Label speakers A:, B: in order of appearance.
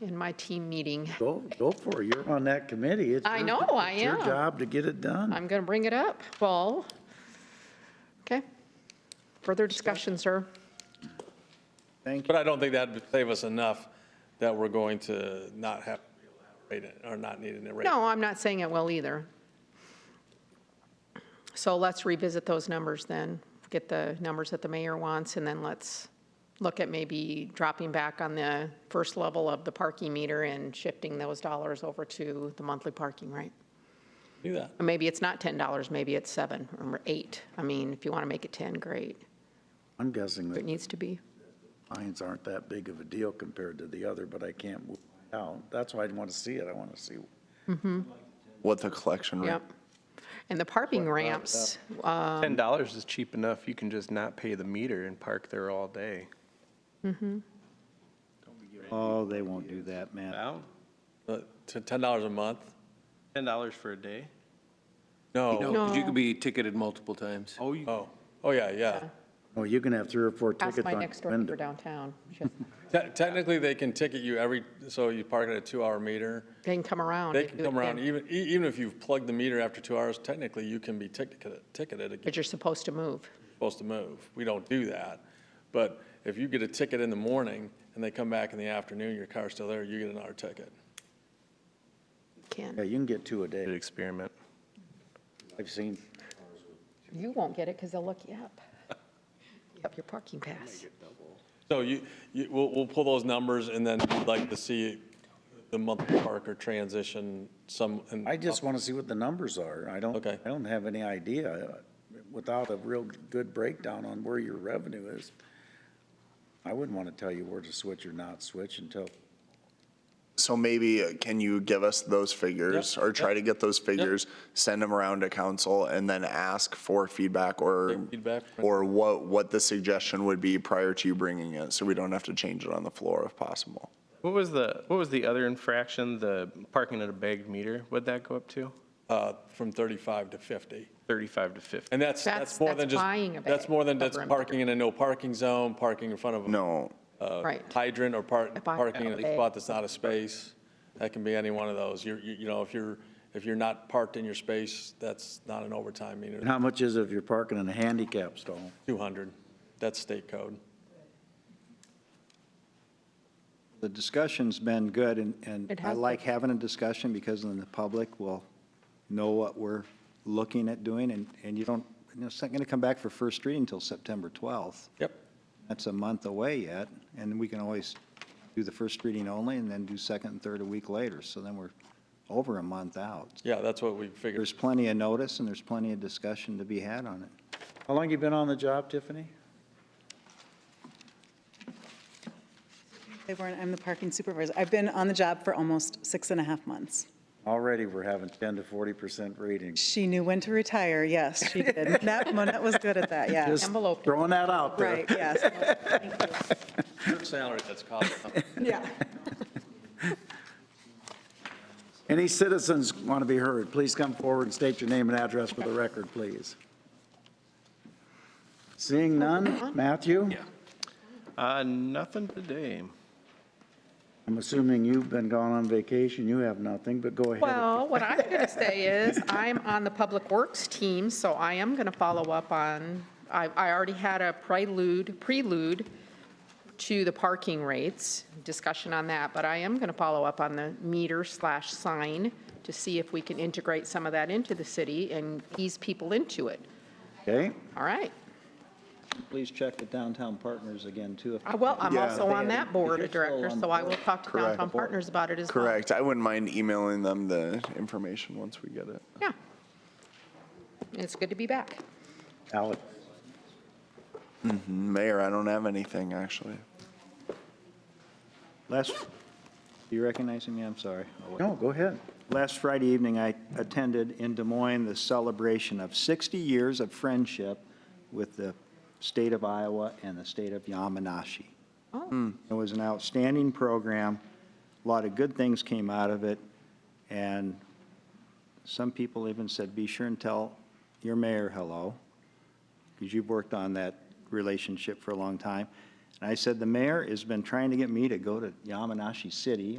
A: in my team meeting.
B: Go, go for it. You're on that committee. It's
A: I
B: your-
A: know, I
B: It's your
A: am.
B: job to get it done.
A: I'm going to bring it up. Well, okay. Further discussion, sir?
B: Thank you.
C: But I don't think that'd save us enough that we're going to not have, rate it or not needing to rate. it.
A: No, I'm not saying it will either. So let's revisit those numbers then, get the numbers that the mayor wants, and then let's look at maybe dropping back on the first level of the parking meter and shifting those dollars over to the monthly parking, right?
C: Do that.
A: Or Maybe it's not $10, maybe it's 7 or 8. I mean, if you want to make it 10, great.
B: I'm guessing
A: If it
B: that
A: needs to be.
B: lines aren't that big of a deal compared to the other, but I can't move out. That's why I want to see it. I want to see.
D: What the collection rate?
A: Yep. And the parking ramps, uh,
E: Um,
F: Ten dollars is cheap enough, you can just not pay the meter and park there all day.
B: Oh, they won't do that, man.
E: Wow,
C: Uh, To ten dollars a month?
E: ten dollars for a day?
C: No.
G: No, Oh, 'cause you could be ticketed multiple times.
E: Oh, you,
C: Oh, oh, yeah, yeah.
B: Oh, you can have three or four tickets
A: ask my
B: on
A: next
B: your
A: door neighbor
B: window.
A: downtown. She-
C: Te- Technically, they can ticket you every, so you park at a two-hour meter.
A: They can come around.
C: They
A: and
C: can
A: do it
C: come around,
A: then,
C: even, e- even if you've plugged the meter after two hours, technically, you can be ticketed, ticketed again.
A: But you're supposed to move.
C: supposed to move. We don't do that. But if you get a ticket in the morning and they come back in the afternoon, your car's still there, you get another ticket.
B: Yeah,
A: Can.
B: you can get two a
F: Good
B: day.
F: experiment.
B: I've seen.
A: You won't get it because they'll look you up. Up your parking pass.
C: So you, you, we'll, we'll pull those numbers and then we'd like to see the monthly parker transition some. and-
B: I just want to see what the numbers are. I don't,
C: Okay.
B: I don't have any idea uh, without a real good breakdown on where your revenue is. I wouldn't want to tell you where to switch or not switch until,
D: So maybe uh, can you give us those figures
C: Yep,
D: or try
C: yep,
D: to get those figures, send them around to council and then ask for feedback or,
C: Take feedback.
D: or what, what the suggestion would be prior to you bringing it, so we don't have to change it on the floor if possible.
F: What was the, what was the other infraction, the parking at a bagged meter, what'd that go up to?
C: Uh, from thirty-five to fifty.
F: Thirty-five to fifty?
C: And that's,
A: That's-
C: that's more than
A: that's
C: just.
A: buying a
C: That's
A: bag
C: more than
A: of
C: just
A: room.
C: parking in a no parking zone, parking in front of. a
D: No,
C: Uh,
A: Right.
C: hydrant or par-
A: If I-
C: parking in
A: Okay.
C: a spot that's not a space, that can be any one of those. You're, you, you know, if you're, if you're not parked in your space, that's not an overtime meter.
B: how much is it if you're parking in a handicap stall?
C: Two hundred, that's state code.
H: The discussion's been good, and, and
A: It
H: I
A: has
H: like having a discussion because then the public will know what we're looking at doing, and, and you don't, you know, it's not going to come back for first reading until September 12th.
C: Yep.
H: That's a month away yet, and we can always do the first reading only and then do second and third a week later, so then we're over a month out.
C: Yeah, that's what we figured.
H: There's plenty of notice and there's plenty of discussion to be had on it.
B: How long you been on the job, Tiffany?
I: Hey, Warren, I'm the parking supervisor. I've been on the job for almost six and a half months.
B: Already, we're having ten to forty percent ratings.
I: She knew when to retire, yes, she did. Monette, Monette was good at that, yeah.
A: Envelope.
B: Throwing that out there.
I: Right, yes,
C: Salary that's cost.
I: yeah.
B: Any citizens want to be heard, please come forward and state your name and address for the record, please. Seeing none, Matthew?
F: Uh, nothing today.
B: I'm assuming you've been gone on vacation, you have nothing, but go ahead.
A: Well, what I'm going to say is, I'm on the Public Works team, so I am going to follow up on, I, I already had a prelude, prelude to the parking rates, discussion on that, but I am going to follow up on the meter slash sign to see if we can integrate some of that into the city and ease people into it.
B: Okay,
A: All right.
H: Please check the downtown partners again, too. if-
A: Uh, Well, I'm
D: Yeah.
A: also on that board of
H: You're still
A: directors,
H: on
A: so I will
H: board.
A: talk to
D: Correct.
A: downtown partners about it as well.
D: correct. I wouldn't mind emailing them the information once we get it.
A: Yeah. It's good to be back.
B: Alex.
D: Mayor, I don't have anything, actually.
H: Last, do you recognize me? I'm sorry. Oh, wait.
B: No, go ahead.
H: Last Friday evening, I attended in Des Moines the celebration of 60 years of friendship with the state of Iowa and the state of Yamanashi. Hmm. It was an outstanding program. A lot of good things came out of it. And some people even said, be sure and tell your mayor hello, because you've worked on that relationship for a long time. And I said, the mayor has been trying to get me to go to Yamanashi City